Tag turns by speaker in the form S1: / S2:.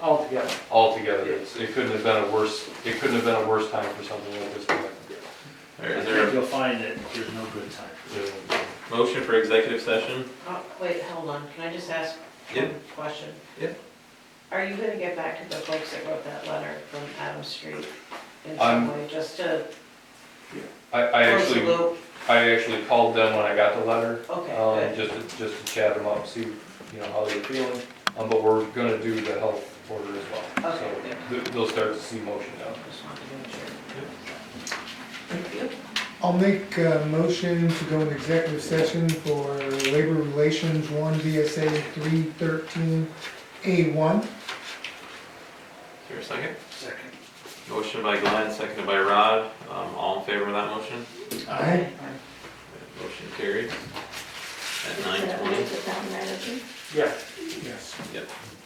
S1: altogether.
S2: altogether. It's- It couldn't have been a worse, it couldn't have been a worse time for something like this. to happen.
S3: Is
S4: I think
S3: there
S4: you'll find that there's no good time.
S2: Yeah.
S3: a motion for executive session?
S5: Oh, wait, hold on, can I just ask
S3: Yeah.
S5: one question?
S3: Yeah.
S5: Are you gonna get back to the folks that wrote that letter from Adam Street in
S2: I'm-
S5: some way, just to
S2: I, I
S5: close the
S2: actually,
S5: loop?
S2: I actually called them when I got the letter.
S5: Okay,
S2: Um,
S5: good.
S2: just to, just to chat them up, see, you know, how they're feeling, um, but we're gonna do the health order as well. So
S5: Okay, good.
S2: th- They'll start to see motion now.
S5: Just wanted to make sure. Thank you.
S6: I'll make a motion to go into executive session for labor relations, one VSA three thirteen A one.
S3: Is there a second?
S4: Second.
S3: Motion by Glenn, seconded by Rod. Um, all in favor of that motion?
S6: Aye.
S3: Motion carries at nine
S7: Is that
S3: twenty.
S7: right, the town manager?
S1: Yeah.
S6: Yes.
S3: Yep.